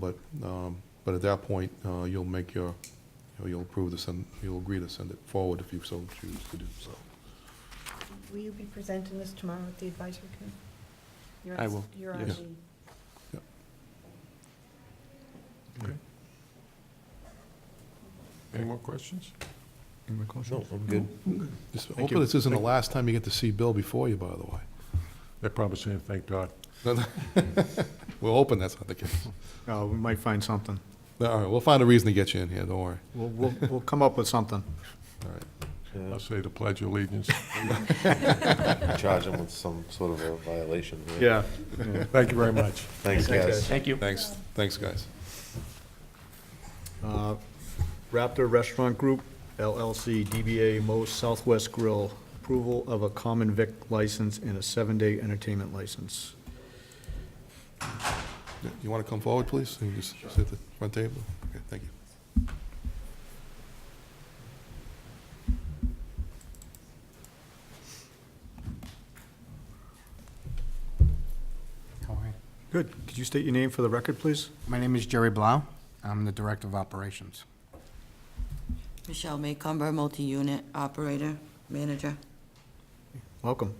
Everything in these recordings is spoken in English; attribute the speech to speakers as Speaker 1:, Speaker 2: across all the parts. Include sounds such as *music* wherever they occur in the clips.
Speaker 1: but, um, but at that point, uh, you'll make your, you know, you'll approve the send, you'll agree to send it forward if you so choose to do so.
Speaker 2: Will you be presenting this tomorrow at the advisory committee? You're
Speaker 3: I
Speaker 2: on-
Speaker 3: will,
Speaker 2: You're on
Speaker 1: yes.
Speaker 2: the,
Speaker 4: Any more questions?
Speaker 3: Any more questions?
Speaker 4: No, I'm good.
Speaker 1: Just
Speaker 4: Thank
Speaker 1: Hopefully,
Speaker 4: you.
Speaker 1: this isn't the
Speaker 4: Thank-
Speaker 1: last time you get to see Bill before you, by the way.
Speaker 4: They're probably saying, thank God.
Speaker 1: *laughs* We're hoping that's not the case.
Speaker 5: Uh, we might find something.
Speaker 1: All right, we'll find a reason to get you in here, don't worry.
Speaker 5: We'll, we'll, we'll come up with something.
Speaker 1: All right.
Speaker 4: I'll say the pledge of allegiance.
Speaker 6: charge them with some sort of a violation. right?
Speaker 5: Yeah.
Speaker 4: Thank you very much.
Speaker 6: Thanks, guys.
Speaker 3: Thank you.
Speaker 1: Thanks, thanks, guys.
Speaker 5: Uh, Raptor Restaurant Group LLC DBA Mo's Southwest Grill, approval of a common vic license and a seven-day entertainment license.
Speaker 1: Yeah, You want to come forward, please? You can just sit at the front table. Okay, thank you.
Speaker 7: How are you?
Speaker 5: Good. Could you state your name for the record, please?
Speaker 7: My name is Jerry Blau. I'm the Director of Operations.
Speaker 8: Michelle Maycomber, multi-unit operator, manager.
Speaker 5: Welcome.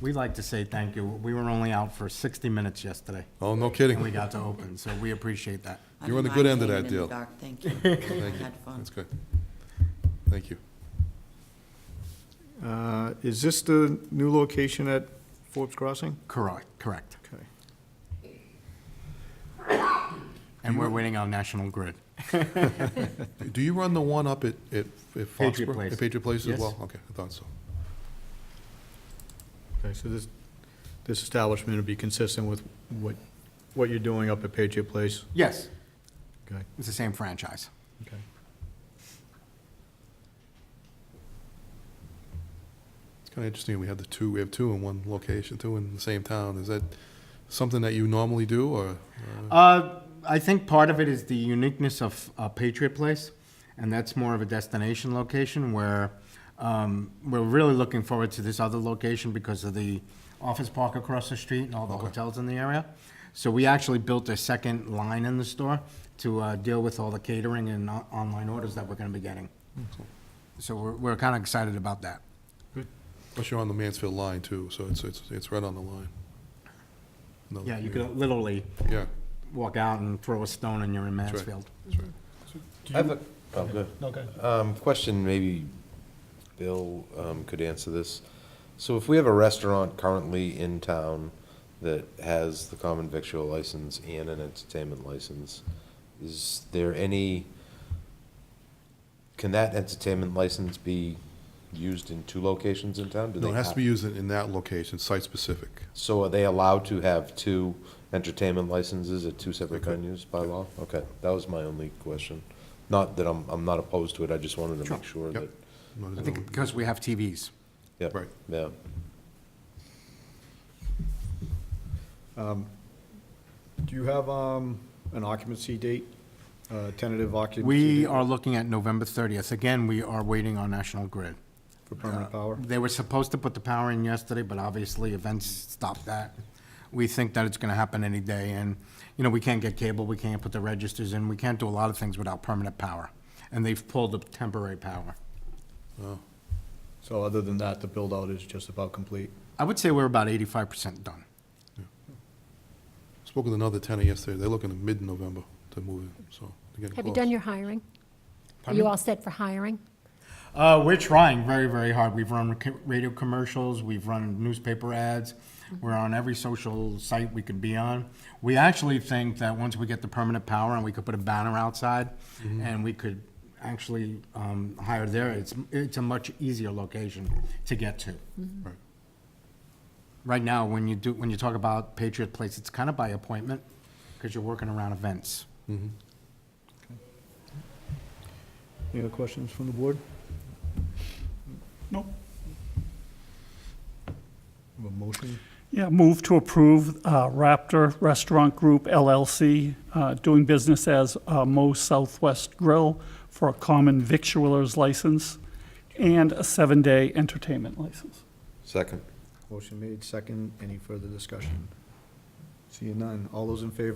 Speaker 7: We'd like to say thank you. We were only out for 60 minutes yesterday,
Speaker 1: Oh, no
Speaker 7: and we
Speaker 1: kidding.
Speaker 7: got to open, so we appreciate that.
Speaker 8: I
Speaker 1: You're on the
Speaker 8: didn't
Speaker 1: good end
Speaker 8: mind
Speaker 1: of that
Speaker 8: hanging in the
Speaker 1: deal.
Speaker 8: dark,
Speaker 1: *laughs*
Speaker 8: Thank you.
Speaker 1: Thank
Speaker 8: I
Speaker 1: you.
Speaker 8: had fun.
Speaker 1: That's good. Thank you.
Speaker 5: Uh, Is this the new location at Forbes Crossing?
Speaker 7: Correct, correct.
Speaker 5: Okay.
Speaker 7: And we're waiting on National Grid.
Speaker 1: Do you run the one up at, at at Foxborough?
Speaker 7: Patriot Place.
Speaker 1: At Patriot Place as
Speaker 7: Yes.
Speaker 1: well? Okay, I thought so.
Speaker 5: Okay, so this, this establishment would be consistent with what, what you're doing up at Patriot Place?
Speaker 7: Yes,
Speaker 5: Okay.
Speaker 7: it's the same franchise.
Speaker 5: Okay.
Speaker 1: It's kind of interesting, we have the two, we have two in one location, two in the same town. Is that something that you normally do, or? uh,
Speaker 7: Uh, I think part of it is the uniqueness of uh, Patriot Place, and that's more of a destination location where um, we're really looking forward to this other location because of the office park across the street and all the hotels in the area. So we actually built a second line in the store to uh, deal with all the catering and o- online orders that we're going to be getting. So we're, we're kind of excited about that.
Speaker 1: Plus, you're on the Mansfield line, too, so it's, it's, it's right on the line. No,
Speaker 7: Yeah, you could literally
Speaker 1: Yeah,
Speaker 7: walk out and throw a stone and you're in
Speaker 1: right.
Speaker 7: Mansfield.
Speaker 1: that's right.
Speaker 6: I have a, oh, good. Um, question, maybe Bill, um, could answer this. So if we have a restaurant currently in town that has the common victual license and an entertainment license, is there any, can that entertainment license be used in two locations in town? Do
Speaker 1: No,
Speaker 6: they
Speaker 1: it has to
Speaker 6: have-
Speaker 1: be used in in that location, site-specific.
Speaker 6: So are they allowed to have two entertainment licenses at two separate venues by law? Okay, that was my only question. Not that I'm, I'm not opposed to it, I just wanted to make sure
Speaker 1: Yep.
Speaker 6: that,
Speaker 1: No,
Speaker 7: I
Speaker 1: there's
Speaker 7: think
Speaker 1: no-
Speaker 7: because we have TVs.
Speaker 6: yeah,
Speaker 1: Right.
Speaker 6: yeah.
Speaker 5: Do you have um, an occupancy date, uh, tentative occupancy?
Speaker 7: We
Speaker 5: date
Speaker 7: are looking at November 30th. Again, we are waiting on National Grid. Uh,
Speaker 5: For permanent power?
Speaker 7: They were supposed to put the power in yesterday, but obviously events stopped that. We think that it's going to happen any day, and, you know, we can't get cable, we can't put the registers in, we can't do a lot of things without permanent power. And they've pulled the temporary power.
Speaker 5: So other than that, the build-out is just about complete.
Speaker 7: I would say we're about 85% done.
Speaker 1: Spoke with another tenant yesterday, they're looking at mid-November to move in, so they're getting
Speaker 9: Have you
Speaker 1: close.
Speaker 9: done your hiring? Are
Speaker 7: Pardon
Speaker 9: you
Speaker 7: me?
Speaker 9: all set for hiring?
Speaker 7: Uh, we're trying very, very hard. We've run co- radio commercials, we've run newspaper ads, we're on every social site we can be on. We actually think that once we get the permanent power and we could put a banner outside and we could actually um, hire there, it's, it's a much easier location to get to.
Speaker 1: Right.
Speaker 7: Right now, when you do, when you talk about Patriot Place, it's kind of by appointment because you're working around events.
Speaker 5: Any other questions from the board?
Speaker 10: No.
Speaker 5: Have A motion?
Speaker 10: Yeah, move to approve uh, Raptor Restaurant Group LLC, uh, doing business as uh, Mo's Southwest Grill for a common victualer's license and a seven-day entertainment license.
Speaker 6: Second.
Speaker 5: Motion made, second. Any further discussion? Seeing none. All those in favor?